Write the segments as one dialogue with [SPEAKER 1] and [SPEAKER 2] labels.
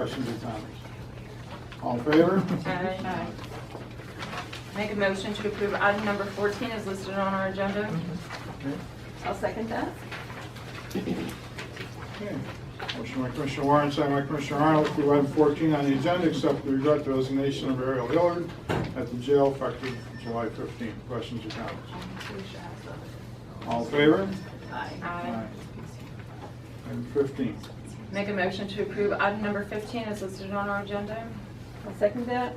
[SPEAKER 1] Questions or comments? All in favor?
[SPEAKER 2] Aye. Make a motion to approve item number 14 is listed on our agenda.
[SPEAKER 1] Okay.
[SPEAKER 2] Uh, I'll second that.
[SPEAKER 1] Okay. Motion by Commissioner Warren, second by Commissioner Arnold, to approve item 14 on the agenda, accept with regret the resignation of Ariel Hillard at the jail effective July 15. Questions or comments? All in favor?
[SPEAKER 2] Aye.
[SPEAKER 1] Item 15.
[SPEAKER 2] Make a motion to approve item number 15 is listed on our agenda. I'll second that.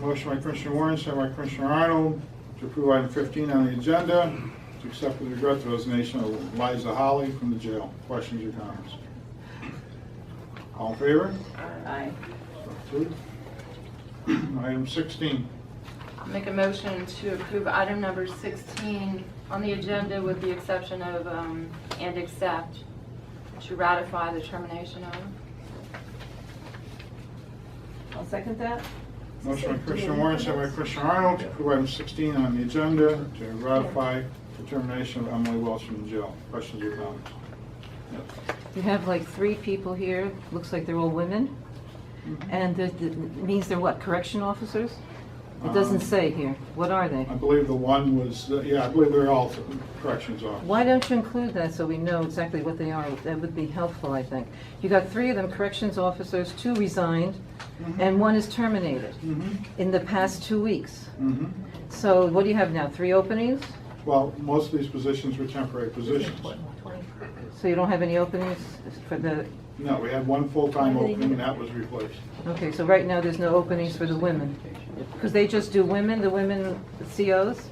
[SPEAKER 1] Motion by Commissioner Warren, second by Commissioner Arnold, to approve item 15 on the agenda, to accept with regret the resignation of Liza Holly from the jail. Questions or comments? All in favor?
[SPEAKER 2] Aye.
[SPEAKER 1] So approved. Item 16.
[SPEAKER 2] Make a motion to approve item number 16 on the agenda with the exception of um, and accept to ratify the termination of. I'll second that.
[SPEAKER 1] Motion by Commissioner Warren, second by Commissioner Arnold, to approve item 16 on the agenda to ratify the termination of Emily Welch from jail. Questions or comments?
[SPEAKER 3] You have like three people here, looks like they're all women, and that that means they're what, correction officers? It
[SPEAKER 1] Um,
[SPEAKER 3] doesn't say here, what are they?
[SPEAKER 1] I believe the one was, yeah, I believe they're all corrections officers.
[SPEAKER 3] Why don't you include that so we know exactly what they are? That would be helpful, I think. You got three of them corrections officers, two resigned, and one is terminated
[SPEAKER 1] Mhm.
[SPEAKER 3] in the past two weeks.
[SPEAKER 1] Mhm.
[SPEAKER 3] So what do you have now, three openings?
[SPEAKER 1] Well, most of these positions were temporary positions.
[SPEAKER 3] So you don't have any openings for the,
[SPEAKER 1] No, we had one full-time opening, and that was replaced.
[SPEAKER 3] okay, so right now there's no openings for the women? Because they just do women, the women COs?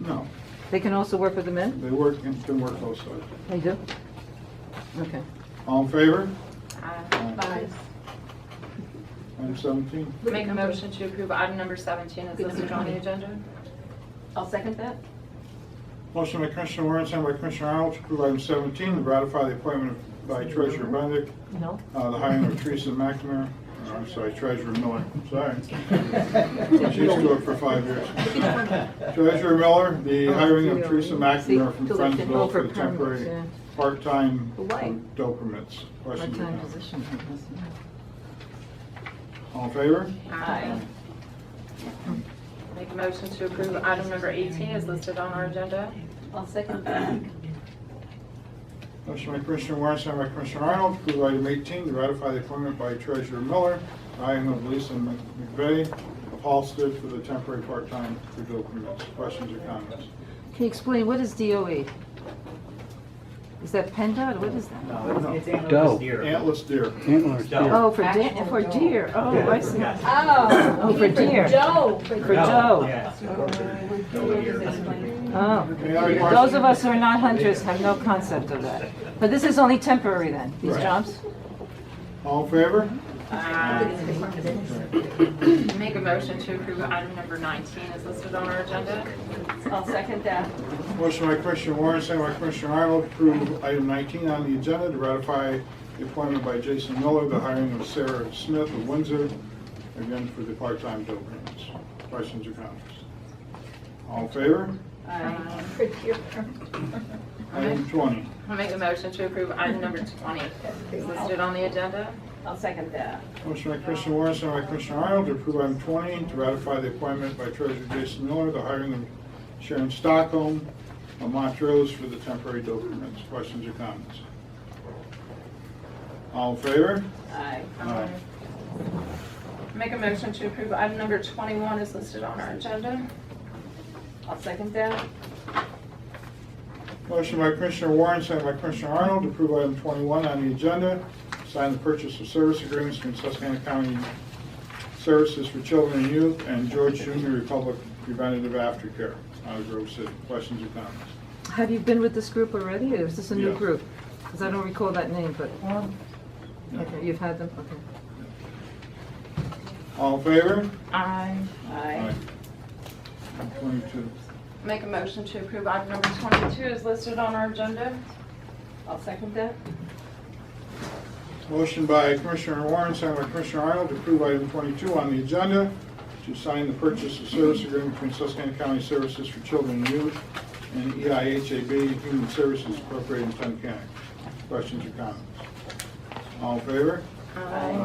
[SPEAKER 1] No,
[SPEAKER 3] They can also work with the men?
[SPEAKER 1] they work, and can work both sides.
[SPEAKER 3] They do? Okay.
[SPEAKER 1] All in favor?
[SPEAKER 2] Aye.
[SPEAKER 1] Item 17.
[SPEAKER 2] Make a motion to approve item number 17 is listed on the agenda. I'll second that.
[SPEAKER 1] Motion by Commissioner Warren, second by Commissioner Arnold, to approve item 17, to ratify the appointment of- by Treasurer Benedict,
[SPEAKER 3] No?
[SPEAKER 1] uh, the hiring of Teresa McNamara, or, I'm sorry, Treasurer Miller, sorry. She used to work for five years. Treasurer Miller, the hiring of Teresa McNamara from
[SPEAKER 3] Oh, See, to look
[SPEAKER 1] Friendsville for
[SPEAKER 3] over
[SPEAKER 1] the
[SPEAKER 3] permits,
[SPEAKER 1] temporary
[SPEAKER 3] yeah.
[SPEAKER 1] part-time
[SPEAKER 3] Why?
[SPEAKER 1] dope permits. Questions or
[SPEAKER 3] Part-time
[SPEAKER 1] comments?
[SPEAKER 3] position.
[SPEAKER 1] All in favor?
[SPEAKER 2] Aye. Make a motion to approve item number 18 is listed on our agenda. I'll second that.
[SPEAKER 1] Motion by Commissioner Warren, second by Commissioner Arnold, to approve item 18, to ratify the appointment by Treasurer Miller, hiring of Lisa McVeigh of Halsted for the temporary part-time for dope permits. Questions or comments?
[SPEAKER 3] Can you explain, what is DOE? Is that PennDOT, what is that?
[SPEAKER 1] No, no.
[SPEAKER 4] It's antlerless
[SPEAKER 5] Doe.
[SPEAKER 4] deer.
[SPEAKER 1] Antlers deer.
[SPEAKER 5] Antlers,
[SPEAKER 4] Doe.
[SPEAKER 3] Oh, for deer, for deer, oh, I see.
[SPEAKER 4] Yeah.
[SPEAKER 6] Oh.
[SPEAKER 3] Oh, for deer,
[SPEAKER 6] Joe.
[SPEAKER 3] for Doe.
[SPEAKER 4] Yeah, it's incorporated. Doe deer.
[SPEAKER 3] Oh.
[SPEAKER 1] Any other
[SPEAKER 3] Those of
[SPEAKER 1] questions?
[SPEAKER 3] us who are not hunters have no concept of that. But this is only temporary then, these
[SPEAKER 1] Right.
[SPEAKER 3] jobs?
[SPEAKER 1] All in favor?
[SPEAKER 2] Make a motion to approve item number 19 is listed on our agenda.
[SPEAKER 6] I'll second that.
[SPEAKER 1] Motion by Commissioner Warren, second by Commissioner Arnold, to approve item 19 on the agenda, to ratify the appointment by Jason Miller, the hiring of Sarah Smith of Windsor, again for the part-time dope permits. Questions or comments? All in favor?
[SPEAKER 2] Aye.
[SPEAKER 6] For deer.
[SPEAKER 1] Item 20.
[SPEAKER 2] I'll Make a motion to approve item number 20 is listed on the agenda.
[SPEAKER 6] I'll second that.
[SPEAKER 1] Motion by Commissioner Warren, second by Commissioner Arnold, to approve item 20, to ratify the appointment by Treasurer Jason Miller, the hiring of Sharon Stockholm of Montrose for the temporary dope permits. Questions or comments? All in favor?
[SPEAKER 6] Aye.
[SPEAKER 1] Aye.
[SPEAKER 2] Make a motion to approve item number 21 is listed on our agenda.
[SPEAKER 6] I'll second that.
[SPEAKER 1] Motion by Commissioner Warren, second by Commissioner Arnold, to approve item 21 on the agenda, sign the purchase of service agreements between Susquehanna County Services for Children and Youth and George Junior Republic Preventative Aftercare out of Grove City. Questions or comments?
[SPEAKER 3] Have you been with this group already, or is this a
[SPEAKER 1] Yeah.
[SPEAKER 3] new group? Because I don't recall that name, but, okay, you've had them, okay.
[SPEAKER 1] All in favor?
[SPEAKER 2] Aye.
[SPEAKER 6] Aye.
[SPEAKER 1] Item 22.
[SPEAKER 2] Make a motion to approve item number 22 is listed on our agenda.
[SPEAKER 6] I'll second that.
[SPEAKER 1] Motion by Commissioner Warren, second by Commissioner Arnold, to approve item 22 on the agenda, to sign the purchase of service agreement between Susquehanna County Services for Children and Youth and E EIHAB Human Services Incorporated in Tunkhannock. Questions or comments? All in favor?
[SPEAKER 2] Aye.